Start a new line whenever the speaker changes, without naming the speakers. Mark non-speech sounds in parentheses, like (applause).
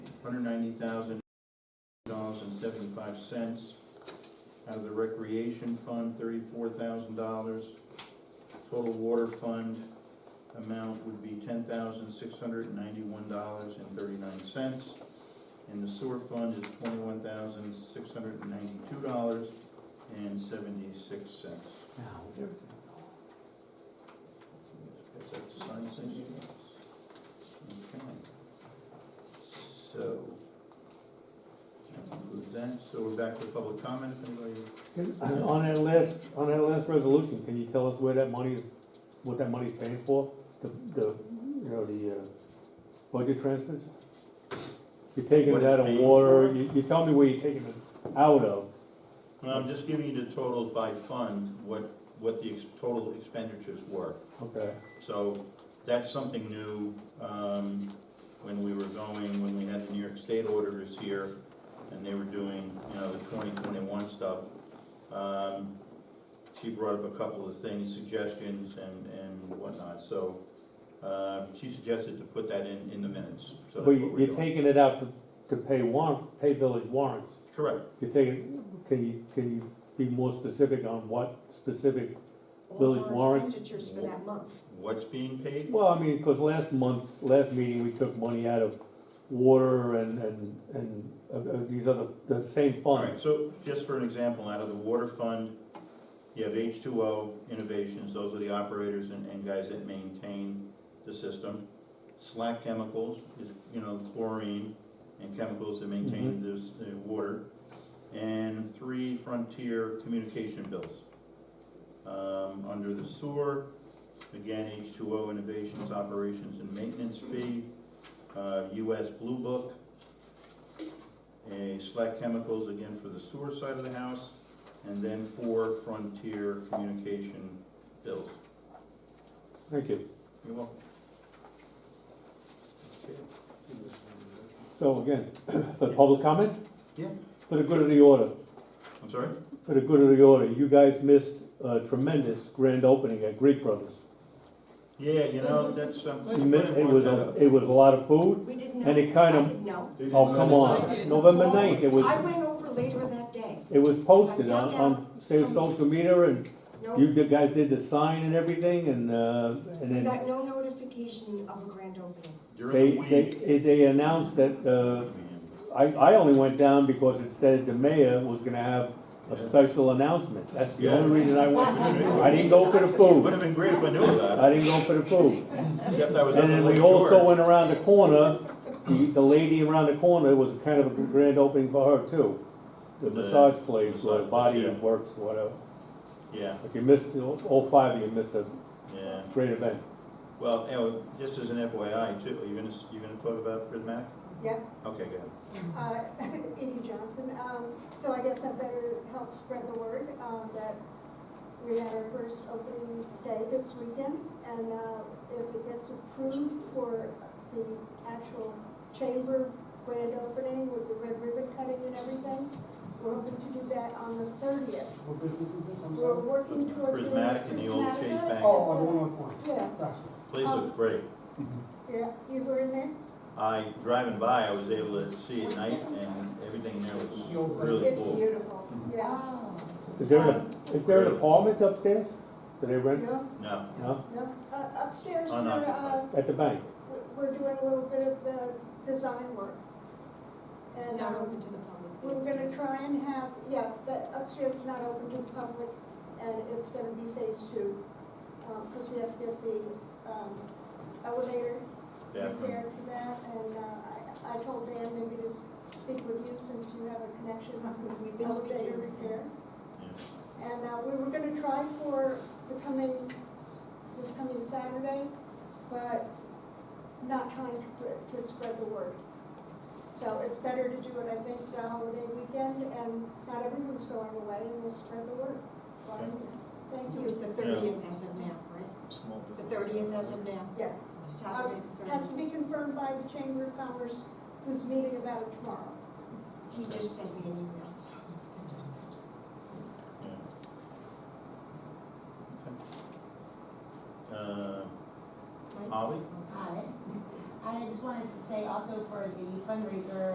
hundred ninety thousand dollars and seventy-five cents. Out of the recreation fund, thirty-four thousand dollars. Total water fund amount would be ten thousand six hundred and ninety-one dollars and thirty-nine cents. And the sewer fund is twenty-one thousand six hundred and ninety-two dollars and seventy-six cents. Is that the sign thing? Okay. So, that concludes that. So we're back to public comment, if anybody,
On that last, on that last resolution, can you tell us where that money, is? what that money's paying for? The, the, you know, the, uh, budget transfers? You're taking
What
it
it's
out of
paying
water,
for?
you, you tell me where you're taking it out of,
Well, I'm just giving you the totals by fund, what, what the ex- total expenditures were.
okay?
So that's something new, um, when we were going, when we had the New York State auditors here, and they were doing, you know, the twenty twenty-one stuff. Um, she brought up a couple of things, suggestions and, and whatnot, so, uh, she suggested to put that in, in the minutes, so that's
But
what
you-
we're
you're
doing.
taking it out to, to pay warrant, pay village warrants.
Correct,
You're taking, can you, can you be more specific on what specific?
All
Village
of our
warrants.
expenditures for that month.
what's being paid?
Well, I mean, because last month, last meeting, we took money out of water and, and, and uh, uh, these other, the same
All right,
funds.
so just for an example, out of the water fund, you have H two O Innovations, those are the operators and, and guys that maintain the system. Slack Chemicals is, you know, chlorine and chemicals that maintain this, the water. And three Frontier communication bills. Um, under the sewer, again, H two O Innovations, operations and maintenance fee, uh, US Blue Book, a Slack Chemicals again for the sewer side of the house, and then four Frontier Communication bills.
Thank you.
You're welcome.
So again, (coughs) for the public comment?
Yeah.
For the good of the order,
I'm sorry?
for the good of the order, you guys missed a tremendous grand opening at Greek Brothers.
Yeah, you know, that's, um, I'm glad
You
you
mi-
brought
It was,
that
a-
up.
it was a lot of food.
We didn't know.
And it kind of-
I didn't know.
Oh, come on,
Decided.
November ninth, it was,
I went over later that day.
it was posted on, on say, social media and
No,
You d- guys did the sign and everything, and, uh, and
we
then
got no notification of a grand opening.
During
they,
the week.
they, they announced that, uh, I, I only went down because it said the mayor was gonna have a special announcement, that's the only reason I went. I didn't go for the
It would
food,
have been great if I knew about
I didn't go for the food.
it, except I was up
And
in
then we
Lake
also
George.
went around the corner, the, the lady around the corner, it was kind of a grand opening for her too. The
The
massage place, or
massage,
body
yeah.
works, whatever,
Yeah,
but you missed, all five of you missed a
yeah.
great event.
Well, anyway, just as an FYI too, are you gonna, you gonna talk about prismatic?
Yeah,
Okay, go ahead.
uh, (laughs) Edie Johnson, um, so I guess I better help spread the word, um, that we had our first opening day this weekend, and, uh, if it gets approved for the actual chamber grand opening with the red ribbon cutting and everything, we're hoping to do that on the thirtieth.
What business is this? I'm
We're
sorry.
working toward. doing
Prismatic and the old Chase
Prismatica.
Bank.
Oh, on one oh one.
Yeah,
Gotcha.
Place
Um,
looked great.
yeah, you were in there?
I, driving by, I was able to see at night and everything there was really
It's
cool.
beautiful, yeah. Ah,
Is there an, is there an apartment upstairs? Do they rent?
Yeah.
No,
No,
No, uh, upstairs, we're, uh,
Unoccupied.
at the bank.
we're- we're doing a little bit of the design work.
It's
And
not
um,
open to the public.
we're gonna
upstairs.
try and have, yes, the upstairs is not open to the public, and it's gonna be phase two, because we have to get the um, elevator
definitely.
prepared for that, and uh, I I told Dan maybe to s- speak with you since you have a connection
We've
with the
been speaking
elevator
with him.
repair. And uh, we were gonna try for the coming, this coming Saturday, but not trying to, pr- to spread the word. So it's better to do it, I think, the holiday weekend, and not everyone's going away, and we'll spread the word.
Okay.
Thank
So it's
you.
the thirtieth as of now, right? The thirtieth as of now,
Yes,
Saturday the
has to
thirtieth.
be confirmed by the Chamber of Commerce, who's meeting about it tomorrow.
He just sent me an email, so.
Yeah. Okay. Uh,
Right?
Ollie?
Hi. I just wanted to say also for the fundraiser,